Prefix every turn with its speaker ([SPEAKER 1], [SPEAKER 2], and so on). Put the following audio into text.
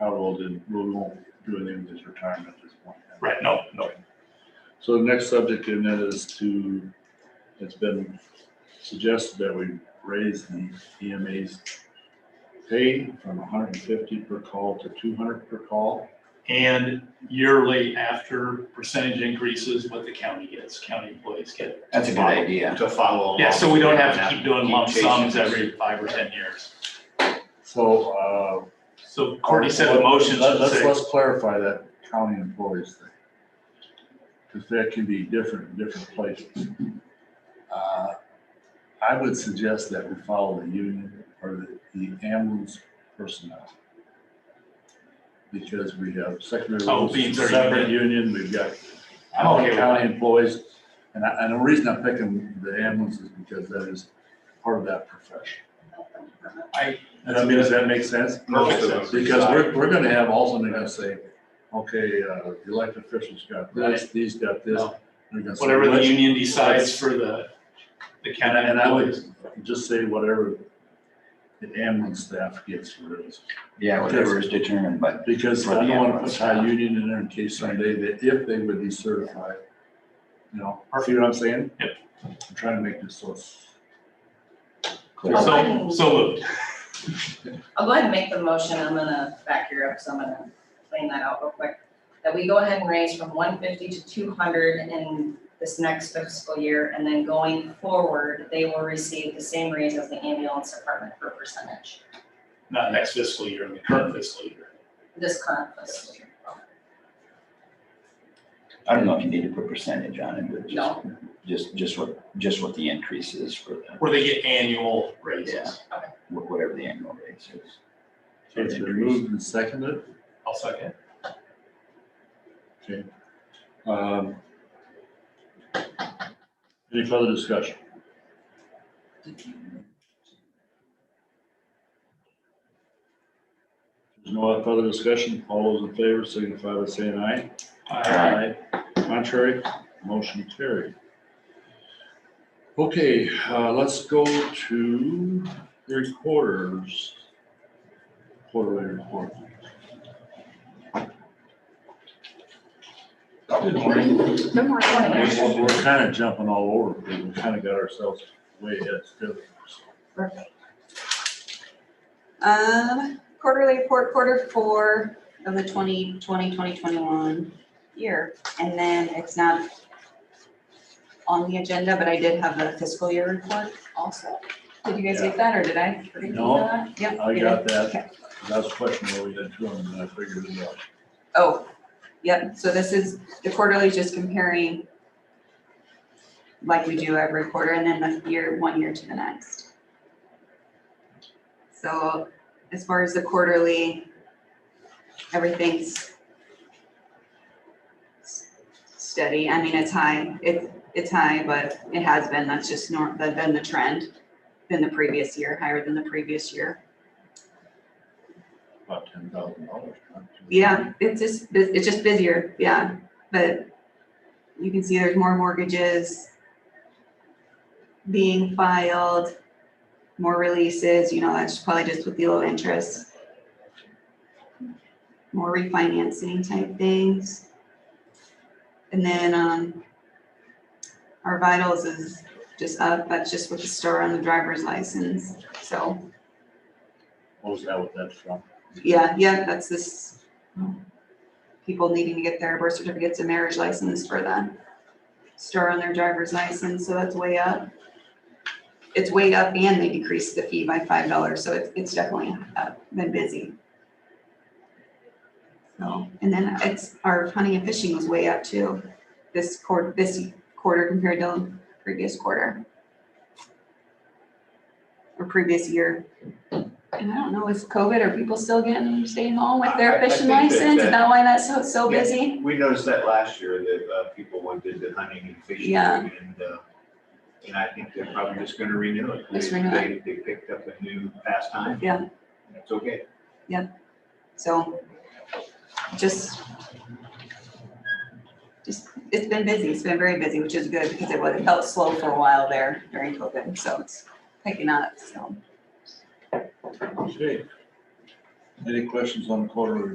[SPEAKER 1] will do, we won't do anything with his retirement at this point.
[SPEAKER 2] Right, no, no.
[SPEAKER 1] So the next subject in that is to, it's been suggested that we raise the EMA's pay from hundred and fifty per call to two hundred per call.
[SPEAKER 2] And yearly after percentage increases, what the county gets, county employees get.
[SPEAKER 3] That's a good idea.
[SPEAKER 4] To follow.
[SPEAKER 2] Yeah, so we don't have to keep doing
[SPEAKER 4] Keep
[SPEAKER 2] lump sums
[SPEAKER 4] chasing.
[SPEAKER 2] every five or ten years.
[SPEAKER 1] So, uh.
[SPEAKER 2] So Courtney said the motion
[SPEAKER 1] Let-
[SPEAKER 2] should
[SPEAKER 1] Let's,
[SPEAKER 2] say,
[SPEAKER 1] let's clarify that county employees thing. Cause that can be different in different places. Uh, I would suggest that we follow the union or the, the ambulance personnel. Because we have secondary.
[SPEAKER 2] Oh,
[SPEAKER 1] roads,
[SPEAKER 2] being their
[SPEAKER 1] Separate union, we've got
[SPEAKER 2] I'm okay with
[SPEAKER 1] county employees. And I, and the reason I'm picking the ambulance is because that is part of that profession.
[SPEAKER 2] I-
[SPEAKER 1] And I mean, does that make sense?
[SPEAKER 4] Most of them.
[SPEAKER 1] Because we're, we're gonna have also, they're gonna say, okay, uh, the elected officials got this, these got this.
[SPEAKER 2] No.
[SPEAKER 1] They're gonna say,
[SPEAKER 2] whatever the
[SPEAKER 1] "Let's-"
[SPEAKER 2] union decides for the, the
[SPEAKER 1] And
[SPEAKER 2] county
[SPEAKER 1] I- and I
[SPEAKER 2] employees.
[SPEAKER 1] would just say whatever the ambulance staff gets for those.
[SPEAKER 3] Yeah, whatever is determined, but
[SPEAKER 1] Because
[SPEAKER 3] For the
[SPEAKER 1] I don't wanna put
[SPEAKER 3] ambulance
[SPEAKER 1] high
[SPEAKER 3] staff.
[SPEAKER 1] union in there in case someday that if they would be certified. You know, see what I'm saying?
[SPEAKER 2] Yep.
[SPEAKER 1] I'm trying to make this so. it's-
[SPEAKER 2] So, so moved.
[SPEAKER 5] I'll go ahead and make the motion, I'm gonna back here up, so I'm gonna clean that out real quick. That we go ahead and raise from one fifty to two hundred in this next fiscal year, and then going forward, they will receive the same raise as the ambulance department per percentage,
[SPEAKER 2] not next fiscal year, the current fiscal year.
[SPEAKER 5] this current fiscal year.
[SPEAKER 3] I don't know if you need to put percentage on it, but just,
[SPEAKER 5] No.
[SPEAKER 3] just, just what, just what the increase is for the,
[SPEAKER 2] Where they get annual raises.
[SPEAKER 3] wh- whatever the annual rate is.
[SPEAKER 1] So It's been moved and seconded.
[SPEAKER 2] I'll second.
[SPEAKER 1] Okay. Um, Any further discussion? There's no further discussion. All those in favor signify by saying aye.
[SPEAKER 2] Aye.
[SPEAKER 1] Contrary, motion carried. Okay, uh, let's go to three quarters. Quarterly report.
[SPEAKER 3] Good morning.
[SPEAKER 6] Good morning.
[SPEAKER 1] We're, we're kind of jumping all over, but we kind of got ourselves way ahead still.
[SPEAKER 6] Um, quarterly report, quarter four of the 2020 2021 year. And then it's not on the agenda, but I did have the fiscal year report also. Did you guys get that or did I? forget to do
[SPEAKER 1] No,
[SPEAKER 6] that? Yep.
[SPEAKER 1] I
[SPEAKER 6] you did.
[SPEAKER 1] got
[SPEAKER 6] Okay.
[SPEAKER 1] that. That's a question where we had two of them, and I figured it out.
[SPEAKER 6] Oh, yep, so this is, the quarterly is just comparing like we do every quarter and then the year, one year to the next. So as far as the quarterly, everything's s- steady. I mean, it's high, it's, it's high, but it has been, that's just nor, but been the trend, than the previous year, higher than the previous year.
[SPEAKER 1] About ten thousand dollars.
[SPEAKER 6] Yeah, it's just, bu- it's just busier, yeah, but you can see there's more mortgages being filed, more releases, you know, that's probably just with the low interest. More refinancing type things. And then, um, our vitals is just up, that's just with the store on the driver's license, so,
[SPEAKER 1] What was that, what that's from?
[SPEAKER 6] yeah, yeah, that's this. People needing to get their birth certificates and marriage license for the store on their driver's license, so that's way up. It's way up and they decreased the fee by five dollars, so it's, it's definitely up, been busy. So, and then it's, our hunting and fishing was way up too, this quarter, this quarter compared to previous quarter. Or previous year. And I don't know, is COVID, are people still getting, staying home with
[SPEAKER 4] I-
[SPEAKER 6] their
[SPEAKER 4] I think
[SPEAKER 6] fishing
[SPEAKER 4] that-
[SPEAKER 6] license? Is
[SPEAKER 4] that-
[SPEAKER 6] that why that's so, so
[SPEAKER 4] Yeah.
[SPEAKER 6] busy?
[SPEAKER 4] We noticed that last year that uh, people wanted the hunting and fishing.
[SPEAKER 6] Yeah.
[SPEAKER 4] And, uh, and I think they're probably just gonna renew it.
[SPEAKER 6] Just
[SPEAKER 4] They-
[SPEAKER 6] renew it.
[SPEAKER 4] They, they picked up a new pastime.
[SPEAKER 6] Yeah.
[SPEAKER 4] It's okay.
[SPEAKER 6] So just, just, it's been busy. It's been very busy, which is good because it was, it felt slow for a while there during COVID. So it's picking up, so.
[SPEAKER 1] Okay. Any questions on the quarterly